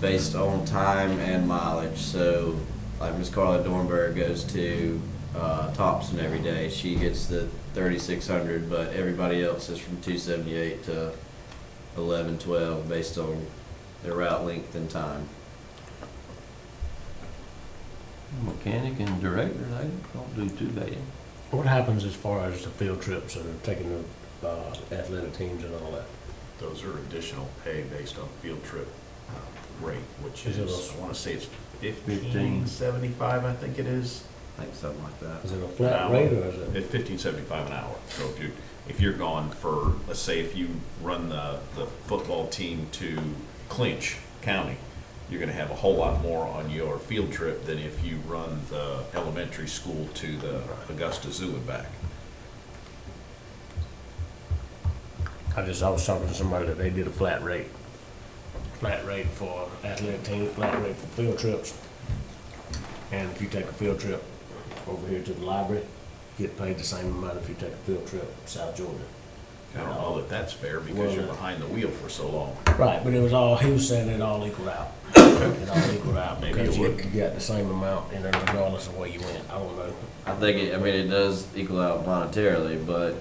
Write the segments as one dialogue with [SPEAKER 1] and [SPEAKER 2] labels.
[SPEAKER 1] based on time and mileage. So, like Miss Carla Dornberg goes to uh, Thompson every day, she gets the 3,600, but everybody else is from 278 to 11, 12 based on their route length and time.
[SPEAKER 2] Mechanic and director, they don't do too bad.
[SPEAKER 3] What happens as far as the field trips and taking the uh, athletic teams and all that?
[SPEAKER 4] Those are additional pay based on field trip uh, rate, which
[SPEAKER 3] Is it
[SPEAKER 4] is,
[SPEAKER 3] a-
[SPEAKER 4] I wanna say it's
[SPEAKER 2] Fifteen.
[SPEAKER 4] fifteen seventy-five, I think it is.
[SPEAKER 1] I think something like that.
[SPEAKER 3] Is it a
[SPEAKER 4] An
[SPEAKER 3] flat
[SPEAKER 4] hour.
[SPEAKER 3] rate or is it?
[SPEAKER 4] It's fifteen seventy-five an hour. So if you, if you're gone for, let's say if you run the, the football team to Clinch County, you're gonna have a whole lot more on your field trip than if you run the elementary school to the Augusta Zoo and back.
[SPEAKER 3] I just, I was talking to somebody that they did a flat rate. Flat rate for athletic teams, flat rate for field trips. And if you take a field trip over here to the library, you get paid the same amount if you take a field trip to South Georgia.
[SPEAKER 4] I don't know that that's fair because you're
[SPEAKER 3] Well, uh,
[SPEAKER 4] behind the wheel for so long.
[SPEAKER 3] Right, but it was all, he was saying it all equaled out. It all equaled out,
[SPEAKER 4] Maybe it
[SPEAKER 3] because you
[SPEAKER 4] would.
[SPEAKER 3] you got the same amount, you know, regardless of where you went, I don't know.
[SPEAKER 1] I think it, I mean it does equal out monetarily, but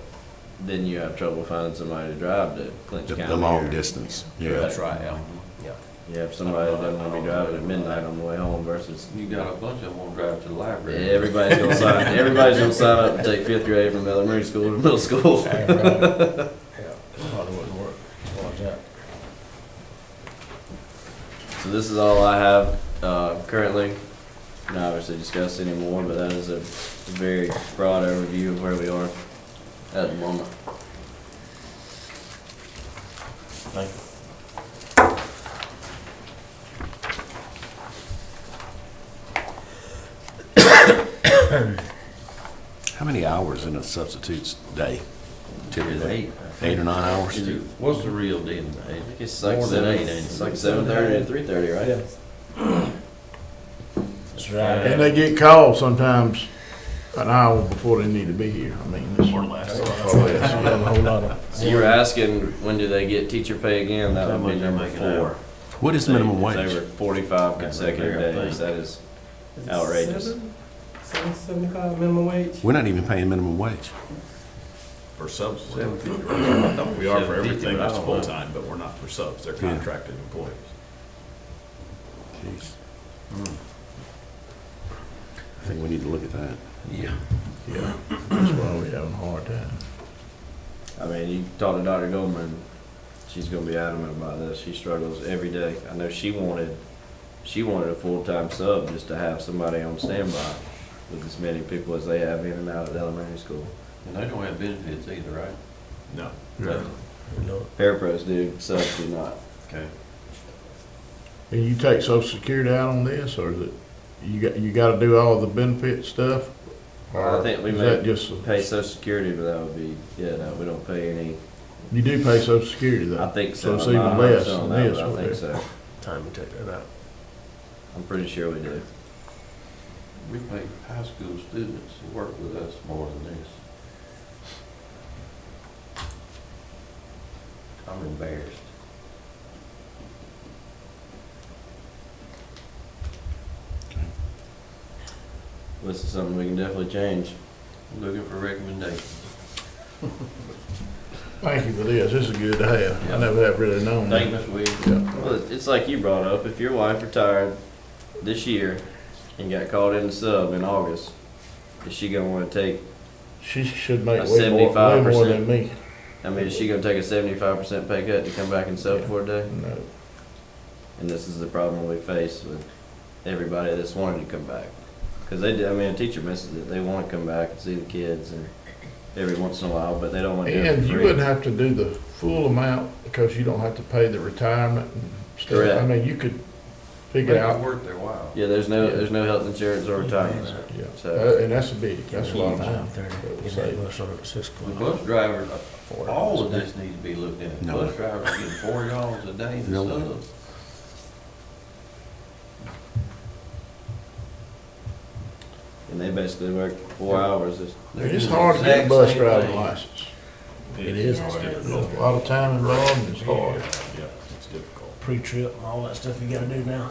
[SPEAKER 1] then you have trouble finding somebody to drive to Clinch
[SPEAKER 5] The,
[SPEAKER 1] County.
[SPEAKER 5] the long
[SPEAKER 1] or-
[SPEAKER 5] distance,
[SPEAKER 1] That's
[SPEAKER 5] yeah.
[SPEAKER 1] right. Yeah.
[SPEAKER 3] Yeah.
[SPEAKER 1] You have somebody that doesn't want to be driving at midnight on the way home versus
[SPEAKER 2] You got a bunch of them on drive to the library.
[SPEAKER 1] everybody's gonna sign. Everybody's gonna sign up and take fifth grade from elementary school to middle school.
[SPEAKER 3] Yeah, probably wouldn't work as far as that.
[SPEAKER 1] So this is all I have uh, currently. Not obviously discuss anymore, but that is a very broad overview of where we are at the moment.
[SPEAKER 3] Thank you.
[SPEAKER 5] How many hours in a substitute's day? Typically,
[SPEAKER 1] Eight.
[SPEAKER 5] eight or nine hours?
[SPEAKER 1] Is it-
[SPEAKER 2] What's the real deal? Dave?
[SPEAKER 1] I think it's like
[SPEAKER 2] More than
[SPEAKER 1] seven,
[SPEAKER 2] eight, ain't it?
[SPEAKER 1] it's like seven thirty to three thirty, right?
[SPEAKER 3] Yeah. That's right.
[SPEAKER 6] And they get called sometimes an hour before they need to be here. I mean, this
[SPEAKER 4] Or less.
[SPEAKER 5] Oh,
[SPEAKER 1] So you were asking, when do they get teacher pay again? That
[SPEAKER 2] How
[SPEAKER 1] would be
[SPEAKER 2] much they
[SPEAKER 1] number
[SPEAKER 2] make an hour?
[SPEAKER 1] four.
[SPEAKER 5] What is minimum
[SPEAKER 1] They were
[SPEAKER 5] wage?
[SPEAKER 1] forty-five consecutive
[SPEAKER 2] Yeah, I think.
[SPEAKER 1] days. That is
[SPEAKER 7] Is it
[SPEAKER 1] Outrageous.
[SPEAKER 7] seven? Seven seventy-five minimum wage?
[SPEAKER 5] We're not even paying minimum wage.
[SPEAKER 4] For subs, we're-
[SPEAKER 2] Seven fifty.
[SPEAKER 4] I thought we are
[SPEAKER 2] Seven
[SPEAKER 4] for
[SPEAKER 2] fifty,
[SPEAKER 4] everything
[SPEAKER 2] but I
[SPEAKER 4] that's
[SPEAKER 2] don't know.
[SPEAKER 4] full-time, but we're not for subs, they're
[SPEAKER 5] Yeah.
[SPEAKER 4] contracted employees.
[SPEAKER 5] Jeez. I think we need to look at that.
[SPEAKER 2] Yeah.
[SPEAKER 6] Yeah, that's why we having a hard time.
[SPEAKER 1] I mean, you talk to Dr. Goldman, she's gonna be adamant about this. She struggles every day. I know she wanted, she wanted a full-time sub just to have somebody on standby with as many people as they have in and out of elementary school.
[SPEAKER 2] And they don't have benefits either, right?
[SPEAKER 4] No,
[SPEAKER 1] Parapros do, subs do not.
[SPEAKER 2] Okay.
[SPEAKER 6] And you take social security out on this, or is it, you got, you gotta do all the benefit stuff?
[SPEAKER 1] Well, I think we
[SPEAKER 6] Is
[SPEAKER 1] may-
[SPEAKER 6] that just, a-
[SPEAKER 1] Pay social security, but that would be, yeah, no, we don't pay any.
[SPEAKER 6] you do pay social security
[SPEAKER 1] I
[SPEAKER 6] though?
[SPEAKER 1] think so.
[SPEAKER 6] So it's
[SPEAKER 1] I'm not
[SPEAKER 6] even less
[SPEAKER 1] 100% on
[SPEAKER 6] than
[SPEAKER 1] that,
[SPEAKER 6] this,
[SPEAKER 1] but I
[SPEAKER 6] right
[SPEAKER 1] think so.
[SPEAKER 3] Time to take that out.
[SPEAKER 1] I'm pretty sure we do.
[SPEAKER 2] We pay high school students who work with us more than this. I'm embarrassed.
[SPEAKER 1] This is something we can definitely change.
[SPEAKER 2] Looking for recommendations.
[SPEAKER 6] Thank you for this, this is good to have. I never have really known
[SPEAKER 2] Thank you,
[SPEAKER 6] that.
[SPEAKER 2] Ms. Williams.
[SPEAKER 1] Well, it- it's like you brought up, if your wife retired this year and got called in the sub in August, is she gonna wanna take,
[SPEAKER 6] She should make
[SPEAKER 1] A
[SPEAKER 6] way more, way more
[SPEAKER 1] 75%.
[SPEAKER 6] than me.
[SPEAKER 1] I mean, is she gonna take a seventy-five percent pay cut to come back and sub for a day?
[SPEAKER 6] No.
[SPEAKER 1] And this is the problem we face with everybody that's wanting to come back. Cause they, do- I mean, a teacher misses it, they wanna come back and see the kids and every once in a while, but they don't wanna do it
[SPEAKER 6] And you
[SPEAKER 1] for
[SPEAKER 6] wouldn't
[SPEAKER 1] free.
[SPEAKER 6] have to do the full amount because you don't have to pay the retirement and stuff.
[SPEAKER 1] Correct.
[SPEAKER 6] I mean, you could
[SPEAKER 2] They
[SPEAKER 6] figure
[SPEAKER 2] can
[SPEAKER 6] out,
[SPEAKER 2] work their while.
[SPEAKER 1] Yeah, there's no, there's no health insurance or retirement.
[SPEAKER 6] yeah,
[SPEAKER 1] So-
[SPEAKER 6] Uh, and that's a big, that's a lot of money.
[SPEAKER 3] Five thirty,
[SPEAKER 6] It would
[SPEAKER 3] get that
[SPEAKER 6] save.
[SPEAKER 3] bus on at six
[SPEAKER 2] The
[SPEAKER 3] o'clock.
[SPEAKER 2] bus drivers,
[SPEAKER 3] Four
[SPEAKER 2] all of
[SPEAKER 3] hours a day.
[SPEAKER 2] this needs to be looked at.
[SPEAKER 5] No.
[SPEAKER 2] Bus drivers are getting four dollars a day and
[SPEAKER 5] Really?
[SPEAKER 2] stuff.
[SPEAKER 1] And they basically work four hours, it's
[SPEAKER 6] It's hard to get a bus driving license.
[SPEAKER 3] It is
[SPEAKER 4] It's
[SPEAKER 3] hard.
[SPEAKER 6] A
[SPEAKER 4] difficult.
[SPEAKER 6] lot of time involved and it's hard.
[SPEAKER 4] Yeah, it's difficult.
[SPEAKER 3] pre-trip and all that stuff you gotta do now.